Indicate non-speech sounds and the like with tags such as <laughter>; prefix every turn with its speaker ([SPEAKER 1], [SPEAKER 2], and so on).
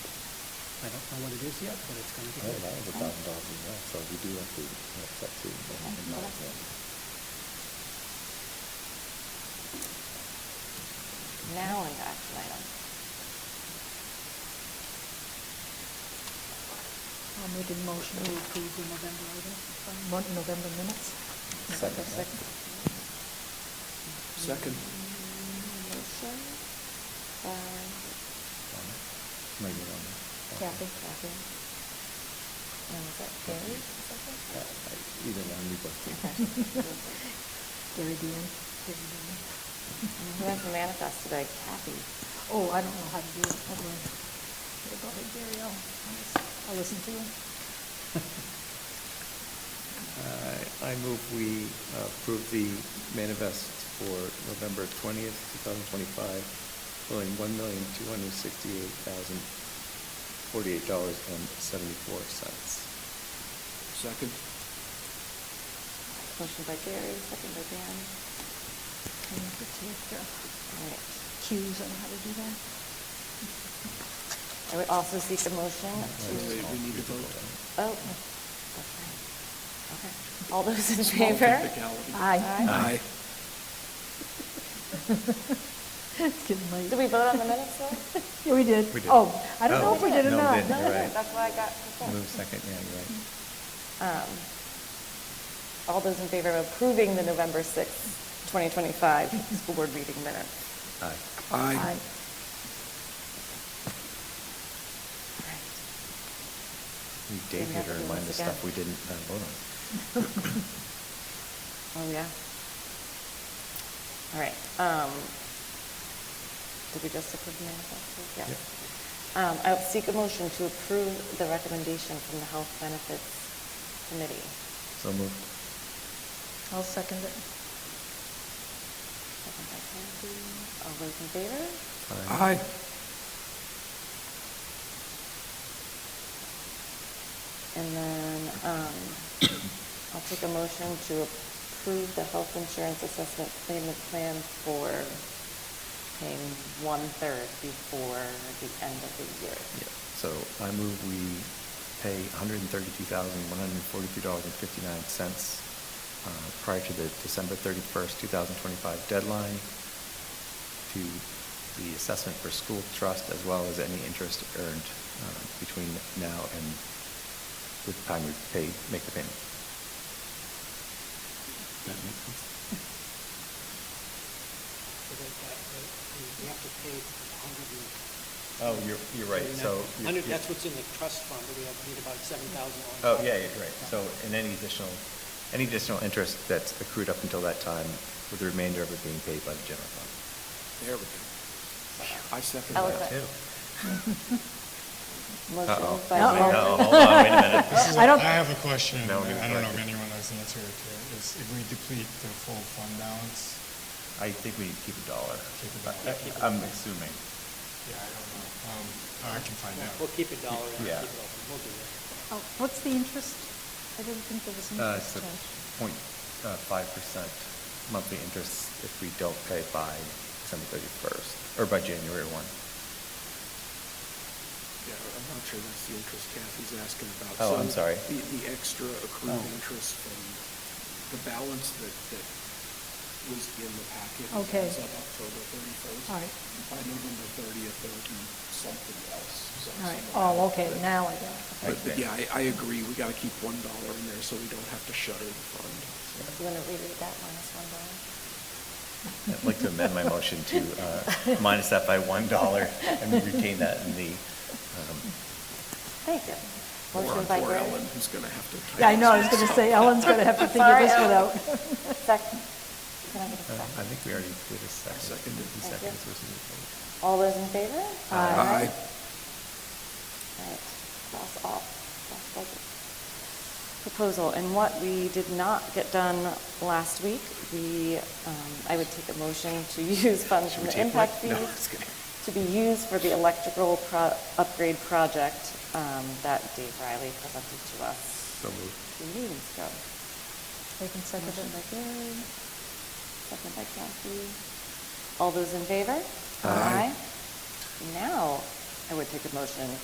[SPEAKER 1] I don't know what it is yet, but it's gonna be
[SPEAKER 2] I don't
[SPEAKER 1] good.
[SPEAKER 2] know, it was a thousand dollars in that, so we do have to, that's that too. but we can not, yeah.
[SPEAKER 3] Now on to action item.
[SPEAKER 4] I'll make a motion to approve the November item, mon- November minutes.
[SPEAKER 2] Second.
[SPEAKER 5] Second.
[SPEAKER 3] Motion by
[SPEAKER 2] Maybe one.
[SPEAKER 3] Kathy, Kathy. And is that Gary? Is that
[SPEAKER 2] Uh, I-
[SPEAKER 3] right?
[SPEAKER 2] Either one, we both do.
[SPEAKER 4] <laughs>
[SPEAKER 3] Okay.
[SPEAKER 4] Gary Dean.
[SPEAKER 3] Who has the manifest today? Kathy.
[SPEAKER 4] Oh, I don't know how to do it, I'll go Go ahead, Gary, I'll, I'll listen- I'll listen to him.
[SPEAKER 5] Uh, I move we approve the manifest for November twentieth, two thousand twenty-five, totaling one million, two hundred sixty-eight thousand, forty-eight dollars and seventy-four cents. Second.
[SPEAKER 3] Motion by Gary, second by Dan.
[SPEAKER 4] Can you put the
[SPEAKER 3] All right.
[SPEAKER 4] cues on how to do that? <laughs>
[SPEAKER 3] I would also seek a motion to,
[SPEAKER 5] we need to vote.
[SPEAKER 3] oh, okay. Okay. All those in favor?
[SPEAKER 5] technicality.
[SPEAKER 3] Aye.
[SPEAKER 5] Aye.
[SPEAKER 4] It's getting late.
[SPEAKER 3] Did we vote on the minutes though?
[SPEAKER 4] Yeah, we did.
[SPEAKER 2] We did.
[SPEAKER 4] Oh, I don't know if we
[SPEAKER 3] Oh,
[SPEAKER 4] did or
[SPEAKER 2] no, we
[SPEAKER 4] not.
[SPEAKER 2] didn't.
[SPEAKER 3] No,
[SPEAKER 2] You're
[SPEAKER 3] no,
[SPEAKER 2] right.
[SPEAKER 3] that's why I got.
[SPEAKER 2] Move second, yeah, you're right.
[SPEAKER 3] Um, All those in favor of approving the November sixth, 2025 <laughs> school board meeting minutes?
[SPEAKER 2] Aye.
[SPEAKER 4] Aye.
[SPEAKER 2] We
[SPEAKER 3] Didn't
[SPEAKER 2] did
[SPEAKER 3] have
[SPEAKER 2] get
[SPEAKER 3] to
[SPEAKER 2] her
[SPEAKER 3] do
[SPEAKER 2] in mind
[SPEAKER 3] this
[SPEAKER 2] of stuff
[SPEAKER 3] again.
[SPEAKER 2] we didn't uh, vote
[SPEAKER 3] <laughs>
[SPEAKER 2] on.
[SPEAKER 3] Oh, yeah. All right. um, Did we just approve the manifest? Yeah. Um, I would seek a motion to approve the recommendation from the Health Benefits Committee.
[SPEAKER 2] So moved.
[SPEAKER 4] I'll second it.
[SPEAKER 3] Second by Kathy. All those in favor?
[SPEAKER 2] Aye.
[SPEAKER 3] And then um, I'll take a motion to approve the health insurance assessment payment plan for paying one-third before the end of the year.
[SPEAKER 2] Yeah, so I move we pay $132,142.59 uh, prior to the December 31st, 2025 deadline to the assessment for school trust as well as any interest earned uh, between now and the time we pay, make the payment.
[SPEAKER 5] That makes sense.
[SPEAKER 1] So that- that- that- You have to pay a hundred and...
[SPEAKER 2] Oh, you're, you're right,
[SPEAKER 1] and
[SPEAKER 2] so.
[SPEAKER 1] that-
[SPEAKER 2] you-
[SPEAKER 1] Hundred,
[SPEAKER 2] you-
[SPEAKER 1] that's what's in the trust fund, but we have, need about seven thousand.
[SPEAKER 2] Oh, yeah, yeah, right. So, and any additional, any additional interest that's accrued up until that time, with the remainder of it being paid by the general fund.
[SPEAKER 5] There we go. I second
[SPEAKER 3] that. Eloquent. Motion
[SPEAKER 2] Uh-oh.
[SPEAKER 3] by
[SPEAKER 4] Uh-oh.
[SPEAKER 3] Mark.
[SPEAKER 2] No, hold on, wait a minute.
[SPEAKER 6] This is,
[SPEAKER 4] I
[SPEAKER 6] I
[SPEAKER 4] don't-
[SPEAKER 6] have a question, and
[SPEAKER 2] No, give me
[SPEAKER 6] I
[SPEAKER 2] a
[SPEAKER 6] don't know if
[SPEAKER 2] question.
[SPEAKER 6] anyone knows the answer to it, is if we deplete the full fund balance,
[SPEAKER 2] I think we need to keep a dollar.
[SPEAKER 6] Keep a dollar.
[SPEAKER 2] I- I- I'm assuming.
[SPEAKER 6] yeah, I don't know, um, I can find out.
[SPEAKER 1] We'll keep a dollar and keep it
[SPEAKER 2] Yeah.
[SPEAKER 1] open, we'll do that.
[SPEAKER 4] Oh, What's the interest? I didn't think there was an
[SPEAKER 2] Uh, it's a
[SPEAKER 4] interest charge.
[SPEAKER 2] point uh, five percent monthly interest if we don't pay by December thirty-first, or by January one.
[SPEAKER 5] Uh, Yeah, I'm not sure that's the interest Kathy's asking about.
[SPEAKER 2] Oh, I'm
[SPEAKER 5] So
[SPEAKER 2] sorry.
[SPEAKER 5] The, the extra accrued
[SPEAKER 1] Oh.
[SPEAKER 5] interest from the balance that, that was in the packet.
[SPEAKER 4] Okay.
[SPEAKER 5] As of October thirty-first.
[SPEAKER 4] All right.
[SPEAKER 5] By November thirtieth, there would be something else. some-
[SPEAKER 4] All right,
[SPEAKER 5] some
[SPEAKER 4] oh,
[SPEAKER 5] amount.
[SPEAKER 4] okay,
[SPEAKER 5] But-
[SPEAKER 4] now I got it.
[SPEAKER 5] But, but yeah, I, I agree, we gotta keep one dollar in there so we don't have to shutter the fund.
[SPEAKER 3] You want to reread that minus one dollar?
[SPEAKER 2] I'd like to amend my motion to uh, minus that by one dollar and retain that in the, um,
[SPEAKER 3] Thank you.
[SPEAKER 5] Or
[SPEAKER 3] Motion by
[SPEAKER 5] Or
[SPEAKER 3] Gary.
[SPEAKER 5] Ellen, who's gonna have <laughs> to.
[SPEAKER 4] Yeah, I know, I was going to say, Ellen's going to have to figure
[SPEAKER 3] Sorry,
[SPEAKER 4] this one
[SPEAKER 3] Ellen.
[SPEAKER 4] out.
[SPEAKER 3] Second. Can I get a
[SPEAKER 2] Uh, I
[SPEAKER 3] second?
[SPEAKER 2] think we already did a second.
[SPEAKER 5] Seconded.
[SPEAKER 2] He
[SPEAKER 3] Thank
[SPEAKER 2] seconded, so
[SPEAKER 3] you.
[SPEAKER 2] it's a-
[SPEAKER 3] All those in favor?
[SPEAKER 4] Aye.
[SPEAKER 5] Aye.
[SPEAKER 3] All right, that's all, that's budget. Proposal, and what we did not get done last week, we, um, I would take a motion to <laughs> use funds from the impact fees to be used for the electrical pro- upgrade project um, that Dave Riley presented to us
[SPEAKER 2] So moved.
[SPEAKER 3] two meetings ago.
[SPEAKER 4] They can second
[SPEAKER 3] Motion by
[SPEAKER 4] it.
[SPEAKER 3] Gary, second by Kathy. All those in favor?
[SPEAKER 2] Aye.
[SPEAKER 3] Now, I would take a motion